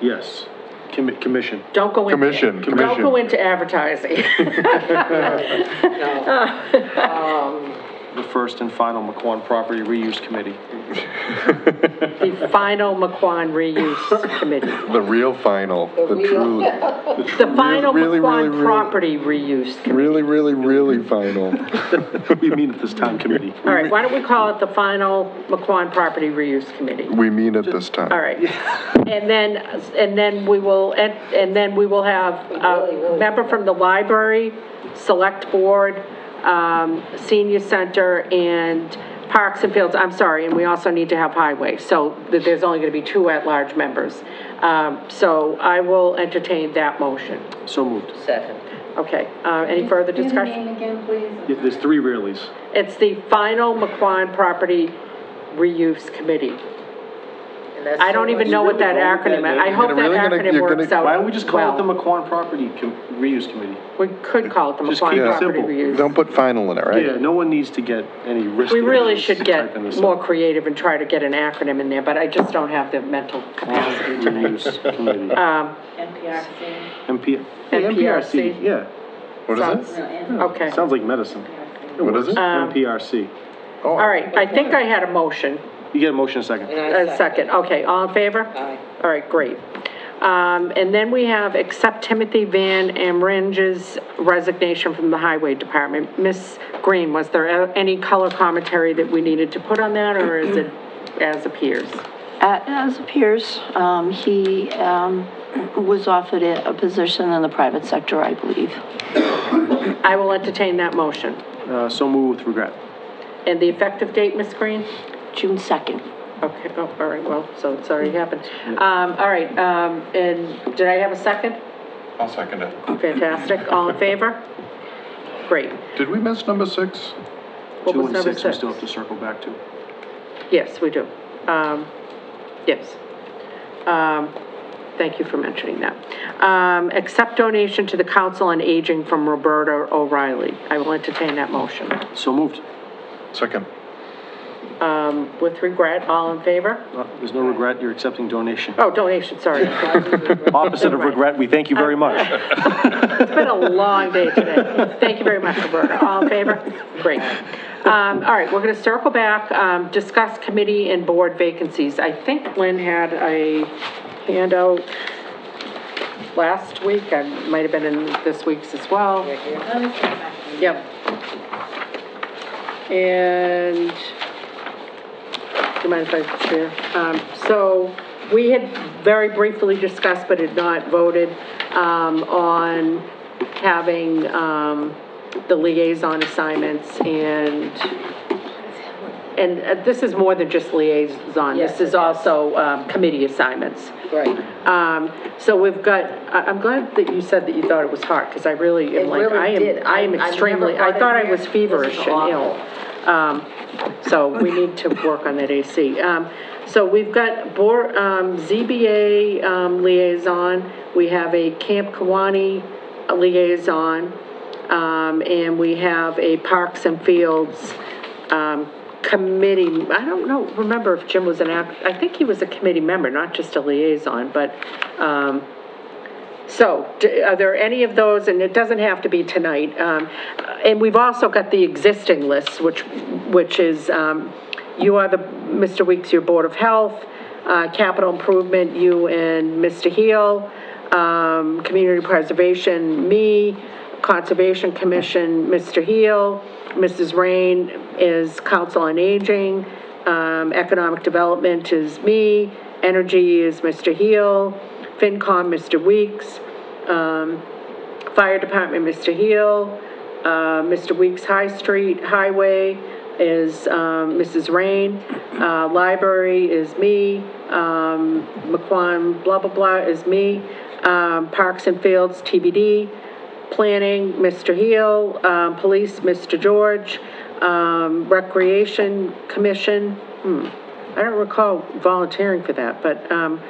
Yes. Commi- Commission. Don't go into. Commission, Don't go commission. into advertising. The first and final McQuon Property Reuse Committee. The final McQuon reuse committee. The real final, the truly, The final really, really, McQuon really- property reuse committee. really, really, really final. We mean at this time, committee. All right, why don't we call it the final McQuon property reuse committee? We mean it this time. All right. And then, and then we will, and and then we will have a member from the library, select board, um, senior center, and parks and fields, I'm sorry, and we also need to have highway. So th- there's only going to be two at-large members. Um, So I will entertain that motion. So moved. Second. Okay, uh, any further discussion? Give the name again, please. Yeah, There's three Rayleys. It's the final McQuon property reuse committee. And that's- I don't even know what that acronym, is. I hope You're that really gonna- acronym you're gonna- works out Why don't we just call it the well. McQuon Property Com- Reuse Committee? We could call it the Just keep McQuon it property simple. Don't reuse. put final in it, Yeah, right? no one needs to get any risky. We really business should get typing this up. more creative and try to get an acronym in there, but I just don't have the mental capacity tonight. Reuse Uh, Committee. NPRC. MP. Hey, NPRC. NPRC, yeah. What is it? Um, Okay, Um, Sounds like medicine. What is it? NPRC. Oh, all right, I think I had a motion, You get a motion in a second. And I a second, okay, all in favor? Aye. All right, great. Um, and then we have accept Timothy Van Amringe's resignation from the Highway Department. Miss Green, was there any color commentary that we needed to put on that, or is it as appears? A- As appears, um, he, um, was offered a a position in the private sector, I believe. I will entertain that motion. Uh, so moved with regret. And the effective date, Ms. Green? June 2nd. Okay, oh, all right, well, so it's already happened. Um, all right, um, and did I have a second? I'll second it. Fantastic, all in favor? Great. Did we miss number six? What Two was and number six, we still have to circle back to. Yes, we do. Um, yes. Um, thank you for mentioning that. Um, accept donation to the Council on Aging from Roberta O'Reilly. I will entertain that motion. So moved. Second. Um, with regret, all in favor? Uh, There's no regret, you're accepting donation. Oh, donation, sorry. Opposite of regret, we thank you very much. It's been a long day today. Thank you very much, Roberta. All in favor? Great. Um, all right, we're gonna circle back, um, discuss committee and board vacancies. I think Lynn had a handout last week, I might have been in this week's as well. Let me see if I Yep. And, do you mind if I share? Um, So, we had very briefly discussed, but had not voted, um, on having, um, the liaison assignments and, and uh, this is more than just liaison. Yes, This is it is. also, um, committee assignments. Right. Um, so we've got, I, I'm glad that you said that you thought it was hard, because I really It am like, really I did. am, I am I- I've extremely, never I thought I thought was it feverish was and awful. ill. Um, so we need to work on that AC. Um, so we've got board, um, ZBA, um, liaison, we have a Camp Kawani liaison, um, and we have a Parks and Fields, um, committee, I don't know, remember if Jim was an act, I think he was a committee member, not just a liaison, but, um, so, d- are there any of those, and it doesn't have to be tonight, um, and we've also got the existing list, which, which is, um, you are the, Mr. Weeks, your Board of Health, uh, Capital Improvement, you and Mr. Heel, um, Community Preservation, me, Conservation Commission, Mr. Heel, Mrs. Rain is Council on Aging, um, Economic Development is me, Energy is Mr. Heel, FinCom, Mr. Weeks, um, Fire Department, Mr. Heel, uh, Mr. Weeks High Street Highway is, um, Mrs. Rain, uh, Library is me, um, McQuan, blah, blah, blah, is me, um, Parks and Fields, TBD, Planning, Mr. Heel, um, Police, Mr. George, um, Recreation Commission, hmm, I don't recall volunteering for that, but, um,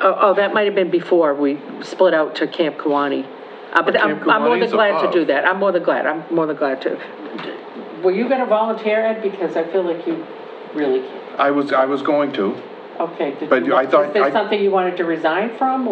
oh, oh, that might have been before we split out to Camp Kawani. Uh, but I'm, I'm more than Kawani's glad to do above. that. I'm more than glad. I'm more than glad to. Were you gonna volunteer, Ed? Because I feel like you really, can't. I was, I was going to. okay. did But you- I thought- Is this I- something you wanted to resign from,